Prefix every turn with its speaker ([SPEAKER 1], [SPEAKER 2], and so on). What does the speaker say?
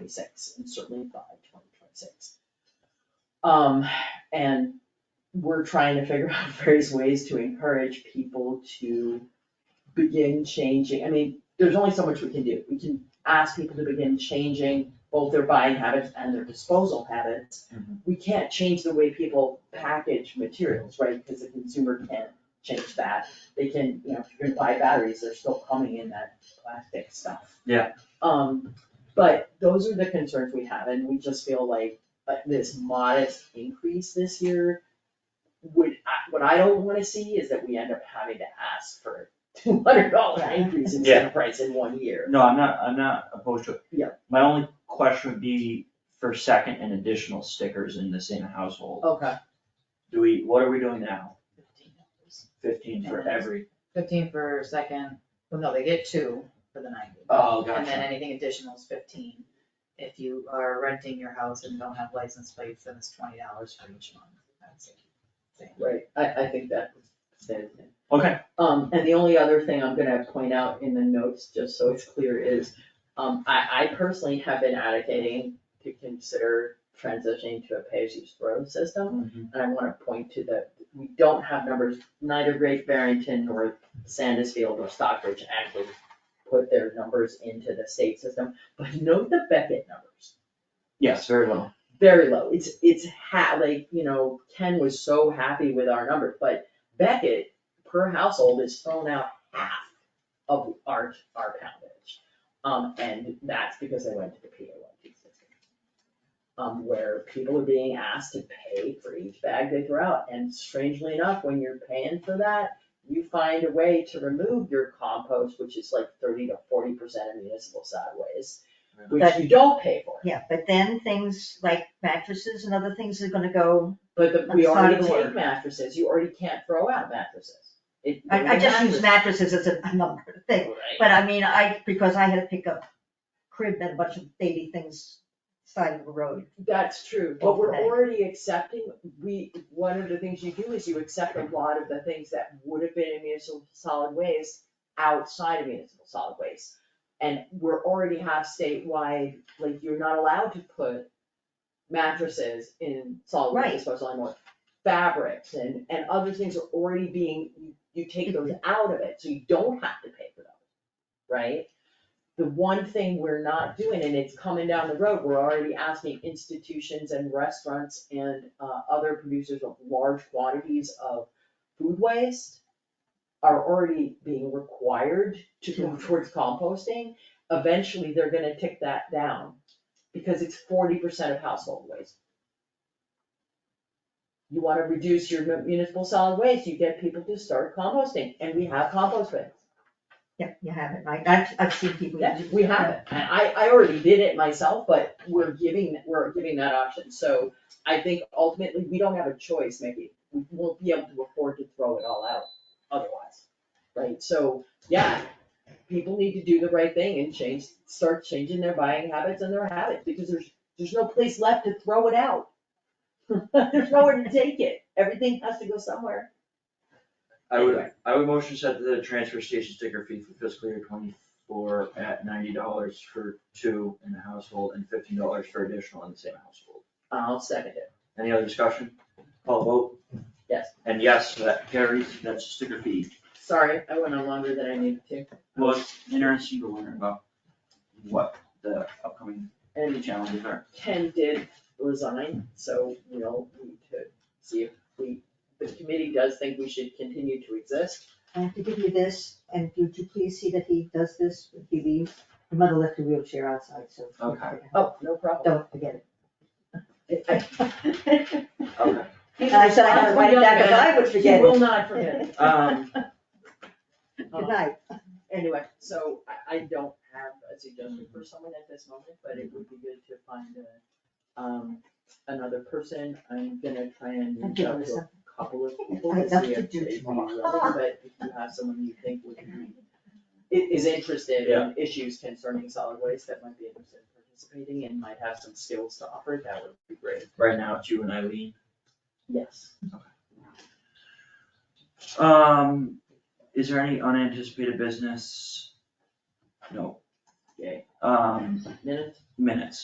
[SPEAKER 1] twenty-six, and certainly by twenty twenty-six. Um, and we're trying to figure out various ways to encourage people to begin changing, I mean, there's only so much we can do, we can ask people to begin changing both their buying habits and their disposal habits.
[SPEAKER 2] Mm-hmm.
[SPEAKER 1] We can't change the way people package materials, right, because the consumer can't change that, they can, you know, if you're gonna buy batteries, they're still coming in that plastic stuff.
[SPEAKER 2] Yeah.
[SPEAKER 1] Um, but those are the concerns we have, and we just feel like, uh this modest increase this year would, I- what I don't wanna see is that we end up having to ask for two hundred dollar increase in
[SPEAKER 2] Yeah.
[SPEAKER 1] sale price in one year.
[SPEAKER 2] No, I'm not, I'm not opposed to it.
[SPEAKER 1] Yeah.
[SPEAKER 2] My only question would be for second and additional stickers in the same household.
[SPEAKER 1] Okay.
[SPEAKER 2] Do we, what are we doing now? Fifteen for every,
[SPEAKER 3] Fifteen for second, well, no, they get two for the ninety.
[SPEAKER 2] oh,
[SPEAKER 3] And then
[SPEAKER 2] gotcha.
[SPEAKER 3] anything additional is fifteen. If you are renting your house and don't have license plates, then it's twenty dollars for each month. That's it. Same.
[SPEAKER 1] Right, I, I think that was said.
[SPEAKER 2] Okay,
[SPEAKER 1] Um, and the only other thing I'm gonna point out in the notes, just so it's clear, is, um, I, I personally have been advocating to consider transitioning to a pay-as-you-throw system.
[SPEAKER 2] Mhm.
[SPEAKER 1] And I wanna point to that, we don't have numbers, neither Great Barrington nor Sandusfield or Stockbridge actually put their numbers into the state system, but note the Beckett numbers
[SPEAKER 2] yes, very well.
[SPEAKER 1] very low. It's, it's ha, like, you know, Ken was so happy with our number, but Beckett per household is thrown out half of our, our poundage. Um, and that's because they went to the P O one two system. Um, where people are being asked to pay for each bag they throw out, and strangely enough, when you're paying for that, you find a way to remove your compost, which is like thirty to forty percent of municipal solid waste, which
[SPEAKER 4] But-
[SPEAKER 1] you don't pay for.
[SPEAKER 4] Yeah, but then things like mattresses and other things are gonna go,
[SPEAKER 1] But the,
[SPEAKER 4] On
[SPEAKER 1] we
[SPEAKER 4] the side
[SPEAKER 1] already
[SPEAKER 4] of the
[SPEAKER 1] take
[SPEAKER 4] road.
[SPEAKER 1] mattresses, you already can't throw out mattresses. It-
[SPEAKER 4] I, I just use
[SPEAKER 1] mattresses-
[SPEAKER 4] mattresses as a a number thing.
[SPEAKER 1] Right.
[SPEAKER 4] But I mean, I, because I had to pick up crib and a bunch of baby things side of the road.
[SPEAKER 1] That's true, but we're
[SPEAKER 4] Okay.
[SPEAKER 1] already accepting, we, one of the things you do is you accept a lot of the things that would have been in municipal solid waste outside of municipal solid waste. And we're already have statewide, like, you're not allowed to put mattresses in solid waste
[SPEAKER 4] Right.
[SPEAKER 1] disposal anymore. Fabrics and, and other things are already being, you- you take those out of it, so you don't have to pay for them, right? The one thing we're not doing, and it's coming down the road, we're already asking institutions and restaurants and, uh, other producers of large quantities of food waste are already being required to go towards composting. Eventually, they're gonna tick that down, because it's forty percent of household waste. You wanna reduce your mu- municipal solid waste, you get people to start composting, and we have compost bins.
[SPEAKER 4] Yeah, you have it, right? I've, I've seen people.
[SPEAKER 1] Yeah,
[SPEAKER 4] use-
[SPEAKER 1] we have it, and I, I already did it myself, but we're giving, we're giving that option, so I think ultimately, we don't have a choice, maybe. We won't be able to afford to throw it all out otherwise, right, so, yeah, people need to do the right thing and change, start changing their buying habits and their habits, because there's, there's no place left to throw it out. There's nowhere to take it, everything has to go somewhere.
[SPEAKER 2] I would, I would motion set the transfer station sticker fee for fiscal year twenty-four at ninety dollars for two in the household and fifteen dollars for additional in the same household.
[SPEAKER 1] I'll second it,
[SPEAKER 2] Any other discussion? Call vote,
[SPEAKER 1] yes,
[SPEAKER 2] and yes, that carries, that's the sticker fee.
[SPEAKER 1] sorry, I went on longer than I needed to,
[SPEAKER 2] Well, it's interesting to learn about what the upcoming
[SPEAKER 1] and
[SPEAKER 2] challenges are.
[SPEAKER 1] Ken did resign, so, you know, we need to see if we, the committee does think we should continue to exist.
[SPEAKER 4] I have to give you this, and would you please see that he does this when he leaves? Your mother left her wheelchair outside, so.
[SPEAKER 2] Okay.
[SPEAKER 1] Oh, no problem.
[SPEAKER 4] Don't forget it.
[SPEAKER 1] I-
[SPEAKER 2] Okay.
[SPEAKER 4] And I said I had to write it down, because I would forget
[SPEAKER 1] He
[SPEAKER 4] it.
[SPEAKER 1] will not forget it.
[SPEAKER 2] Um,
[SPEAKER 4] Good night.
[SPEAKER 1] Anyway, so I, I don't have a suggestion for someone at this moment, but it would be good to find a, um, another person. I'm gonna try and
[SPEAKER 4] I'm
[SPEAKER 1] reach
[SPEAKER 4] giving
[SPEAKER 1] out
[SPEAKER 4] this
[SPEAKER 1] to
[SPEAKER 4] up.
[SPEAKER 1] a couple of people
[SPEAKER 4] I'd
[SPEAKER 1] to
[SPEAKER 4] love
[SPEAKER 1] see
[SPEAKER 4] to
[SPEAKER 1] if
[SPEAKER 4] do
[SPEAKER 1] they'd be
[SPEAKER 4] tomorrow.
[SPEAKER 1] willing, but if you have someone you think would be, i- is interested in issues concerning solid waste that might be interested in participating and might have some skills to offer, that would be great.
[SPEAKER 2] right now it's you and Eileen.
[SPEAKER 1] Yes.
[SPEAKER 2] Um, is there any unanticipated business? No.
[SPEAKER 1] Yay.
[SPEAKER 2] Um,
[SPEAKER 1] Minutes?
[SPEAKER 2] minutes.